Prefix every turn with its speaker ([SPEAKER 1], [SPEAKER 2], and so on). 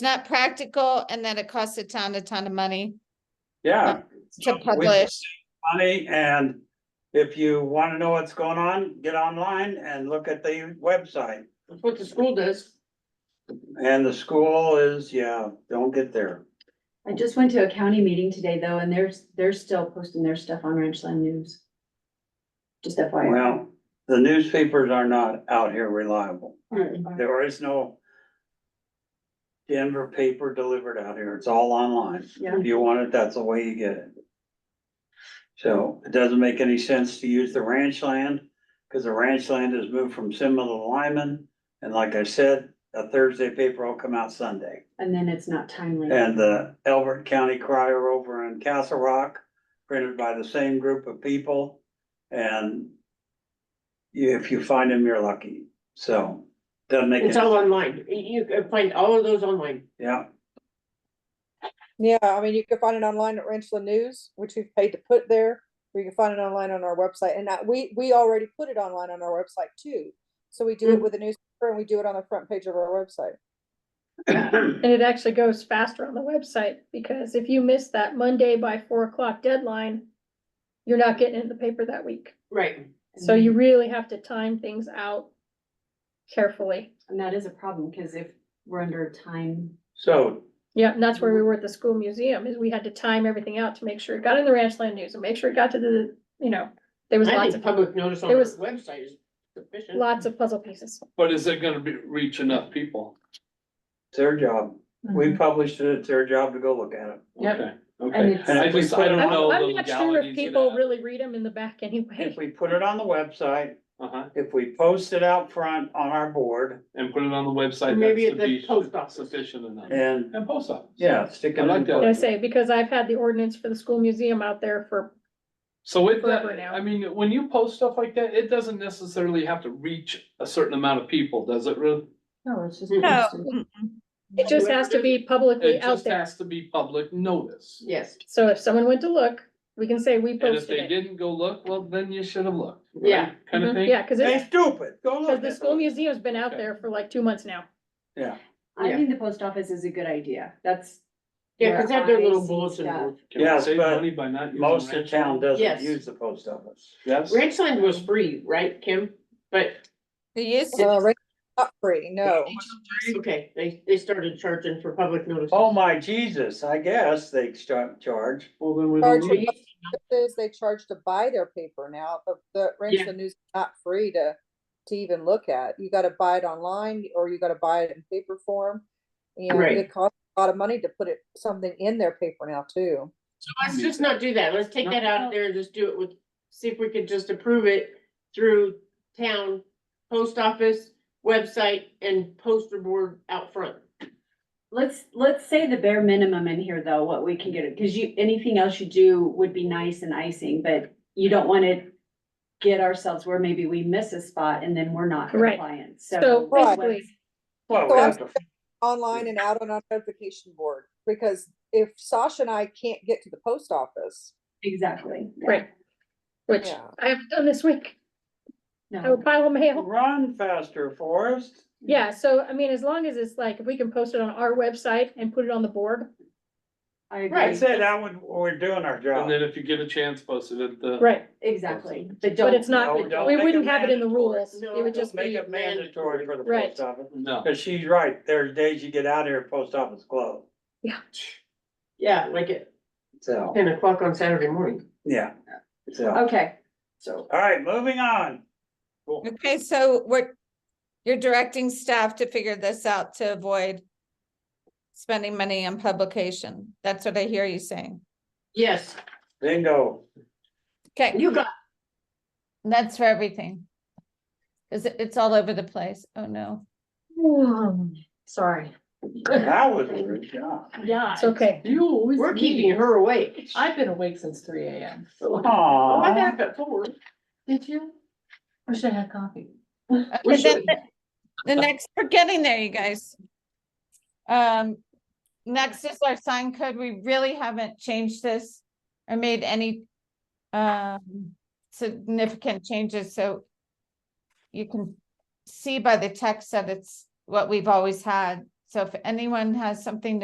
[SPEAKER 1] it's not practical and that it costs a ton, a ton of money
[SPEAKER 2] yeah.
[SPEAKER 1] to
[SPEAKER 2] We-
[SPEAKER 1] publish.
[SPEAKER 2] Money and if you wanna know what's going on, get online and look at the website.
[SPEAKER 3] That's what the school does.
[SPEAKER 2] And the school is, yeah, don't get there.
[SPEAKER 4] I just went to a county meeting today though, and they're, they're still posting their stuff on Ranchland News. Just FYI.
[SPEAKER 2] Well, the newspapers are not out here reliable. There is no Denver paper delivered out here. It's all online.
[SPEAKER 4] Yeah.
[SPEAKER 2] If you want it, that's the way you get it. So it doesn't make any sense to use the ranch land, because the ranch land has moved from Simon to Lyman. And like I said, a Thursday paper will come out Sunday.
[SPEAKER 4] And then it's not timely.
[SPEAKER 2] And the Elbert County Crier over in Castle Rock, printed by the same group of people. And you- if you find them, you're lucky. So doesn't make.
[SPEAKER 3] It's
[SPEAKER 2] any-
[SPEAKER 3] all online. You can find all of those online.
[SPEAKER 2] Yeah,
[SPEAKER 5] Yeah, I mean, you can find it online at Ranchland News, which we've paid to put there, or you can find it online on our website. And that, we, we already put it online on our website too. So we do it
[SPEAKER 3] Mm.
[SPEAKER 5] with a newspaper and we do it on the front page of our website.
[SPEAKER 6] And it actually goes faster on the website, because if you miss that Monday by four o'clock deadline, you're not getting it in the paper that week.
[SPEAKER 3] Right.
[SPEAKER 6] So
[SPEAKER 3] Mm-hmm.
[SPEAKER 6] you really have to time things out carefully.
[SPEAKER 4] And that is a problem, because if we're under time,
[SPEAKER 2] so
[SPEAKER 6] Yeah, and that's where we were at the school museum, is we had to time everything out to make sure it got in the Ranchland News and make sure it got to the, you know, there was
[SPEAKER 3] I
[SPEAKER 6] lots
[SPEAKER 3] think
[SPEAKER 6] of,
[SPEAKER 3] public notice on
[SPEAKER 6] there
[SPEAKER 3] the
[SPEAKER 6] was-
[SPEAKER 3] website is sufficient.
[SPEAKER 6] lots of puzzle pieces.
[SPEAKER 7] But is it gonna be, reach enough people?
[SPEAKER 2] it's their job.
[SPEAKER 6] Mm-hmm.
[SPEAKER 2] We published it, it's their job to go look at it.
[SPEAKER 3] Yep.
[SPEAKER 7] Okay,
[SPEAKER 4] And
[SPEAKER 7] Okay,
[SPEAKER 4] it's-
[SPEAKER 7] and I just, I don't
[SPEAKER 6] I'm,
[SPEAKER 7] know the
[SPEAKER 6] I'm not sure if
[SPEAKER 7] legalities of
[SPEAKER 6] people
[SPEAKER 7] that.
[SPEAKER 6] really read them in the back anyway.
[SPEAKER 2] If we put it on the website,
[SPEAKER 7] Uh-huh,
[SPEAKER 2] if we post it out front on our board
[SPEAKER 7] and put it on the website, that
[SPEAKER 3] Maybe at
[SPEAKER 7] should
[SPEAKER 3] the
[SPEAKER 7] be
[SPEAKER 3] post office.
[SPEAKER 7] sufficient enough.
[SPEAKER 2] and,
[SPEAKER 7] And post office.
[SPEAKER 2] yeah, stick it
[SPEAKER 7] I
[SPEAKER 2] in.
[SPEAKER 7] like that.
[SPEAKER 6] I
[SPEAKER 2] the
[SPEAKER 6] say, because I've had the ordinance for the school museum out there for,
[SPEAKER 7] So it,
[SPEAKER 6] Forever now.
[SPEAKER 7] I mean, when you post stuff like that, it doesn't necessarily have to reach a certain amount of people, does it, Ruth?
[SPEAKER 4] no, it's just.
[SPEAKER 3] No.
[SPEAKER 6] it just has to be publicly
[SPEAKER 7] It
[SPEAKER 6] out
[SPEAKER 7] just
[SPEAKER 6] there.
[SPEAKER 7] has to be public notice.
[SPEAKER 3] Yes,
[SPEAKER 6] So if someone went to look, we can say we
[SPEAKER 7] And if they
[SPEAKER 6] posted it.
[SPEAKER 7] didn't go look, well, then you should have looked.
[SPEAKER 3] Yeah.
[SPEAKER 7] Kind of
[SPEAKER 6] Mhm,
[SPEAKER 7] thing?
[SPEAKER 6] Yeah, cause
[SPEAKER 2] They
[SPEAKER 6] it's,
[SPEAKER 2] stupid, go
[SPEAKER 6] cause
[SPEAKER 2] look.
[SPEAKER 6] the
[SPEAKER 2] at
[SPEAKER 6] school
[SPEAKER 2] it.
[SPEAKER 6] museum's been out there for like two months now.
[SPEAKER 2] Yeah,
[SPEAKER 4] I
[SPEAKER 3] Yeah.
[SPEAKER 4] think the post office is a good idea. That's.
[SPEAKER 3] yeah, cause they have their
[SPEAKER 4] where
[SPEAKER 3] little
[SPEAKER 4] I see
[SPEAKER 3] bulletin
[SPEAKER 4] stuff.
[SPEAKER 3] board.
[SPEAKER 7] Can we
[SPEAKER 2] Yes,
[SPEAKER 7] save
[SPEAKER 2] but
[SPEAKER 7] money by not using?
[SPEAKER 2] most of
[SPEAKER 7] Ranch
[SPEAKER 2] town
[SPEAKER 7] Land?
[SPEAKER 2] doesn't
[SPEAKER 3] Yes.
[SPEAKER 2] use the post office.
[SPEAKER 7] Yes.
[SPEAKER 3] Ranchland was free, right, Kim? But,
[SPEAKER 1] The use,
[SPEAKER 5] Uh, Ranchland's not free, no.
[SPEAKER 3] okay, they, they started charging for public notice.
[SPEAKER 2] Oh my Jesus, I guess they start charge.
[SPEAKER 7] Well, then we don't
[SPEAKER 5] Charge
[SPEAKER 7] need
[SPEAKER 5] for
[SPEAKER 7] it.
[SPEAKER 3] you-
[SPEAKER 5] publishers, They charge to buy their paper now, but the Ranchland News is not free to, to even look at. You gotta buy it online or you gotta buy it in paper form. And
[SPEAKER 3] Right.
[SPEAKER 5] it costs a lot of money to put it, something in their paper now too.
[SPEAKER 3] So let's just not do that. Let's take that out of there and just do it with, see if we could just approve it through town, post office, website, and poster board out front.
[SPEAKER 4] Let's, let's say the bare minimum in here though, what we can get, because you, anything else you do would be nice and icing, but you don't want to get ourselves where maybe we miss a spot and then we're not
[SPEAKER 6] Right.
[SPEAKER 4] compliant,
[SPEAKER 6] So
[SPEAKER 4] so.
[SPEAKER 6] basically,
[SPEAKER 2] Well,
[SPEAKER 5] So
[SPEAKER 2] we
[SPEAKER 5] I'm-
[SPEAKER 2] have to-
[SPEAKER 5] online and out on our notification board, because if Sasha and I can't get to the post office,
[SPEAKER 4] Exactly. yeah,
[SPEAKER 6] Right. which
[SPEAKER 5] Yeah.
[SPEAKER 6] I haven't done this week, I
[SPEAKER 4] No.
[SPEAKER 6] would pile of mail.
[SPEAKER 2] run faster, Forrest.
[SPEAKER 6] Yeah, so I mean, as long as it's like, if we can post it on our website and put it on the board,
[SPEAKER 4] I agree,
[SPEAKER 2] I said that would, we're doing our job.
[SPEAKER 7] And then if you get a chance, post it at the.
[SPEAKER 6] right,
[SPEAKER 4] exactly, but
[SPEAKER 6] but
[SPEAKER 4] don't,
[SPEAKER 6] it's not,
[SPEAKER 2] No, don't
[SPEAKER 6] we
[SPEAKER 2] make it
[SPEAKER 6] wouldn't have it in the
[SPEAKER 2] mandatory.
[SPEAKER 6] rules,
[SPEAKER 3] No,
[SPEAKER 6] it would
[SPEAKER 3] don't
[SPEAKER 6] just
[SPEAKER 2] Make
[SPEAKER 6] be,
[SPEAKER 2] it mandatory for the
[SPEAKER 6] Right.
[SPEAKER 2] post office.
[SPEAKER 7] No.
[SPEAKER 2] Cause she's right, there's days you get out here, post office closed.
[SPEAKER 3] Yeah, like at
[SPEAKER 2] So,
[SPEAKER 3] ten o'clock on Saturday morning.
[SPEAKER 2] yeah. So,
[SPEAKER 4] okay, so.
[SPEAKER 2] all right, moving on.
[SPEAKER 1] okay, so we're, you're directing staff to figure this out to avoid spending money on publication. That's what I hear you saying.
[SPEAKER 3] Yes,
[SPEAKER 2] Bingo.
[SPEAKER 1] Okay,
[SPEAKER 3] you got,
[SPEAKER 1] that's for everything. Is it, it's all over the place. Oh, no.
[SPEAKER 8] Sorry.
[SPEAKER 2] That was a good job.
[SPEAKER 8] Yeah.
[SPEAKER 6] it's okay.
[SPEAKER 8] You always.
[SPEAKER 3] we're keeping her awake.
[SPEAKER 8] I've been awake since three AM.
[SPEAKER 3] Oh, I'm
[SPEAKER 2] Aw,
[SPEAKER 3] back at four.
[SPEAKER 8] Did you? Wish I had coffee.
[SPEAKER 3] We're
[SPEAKER 1] Okay, then
[SPEAKER 3] shooting.
[SPEAKER 1] The next, we're getting there, you guys. Um, next is our sign code. We really haven't changed this or made any um significant changes, so you can see by the text that it's what we've always had. So if anyone has something to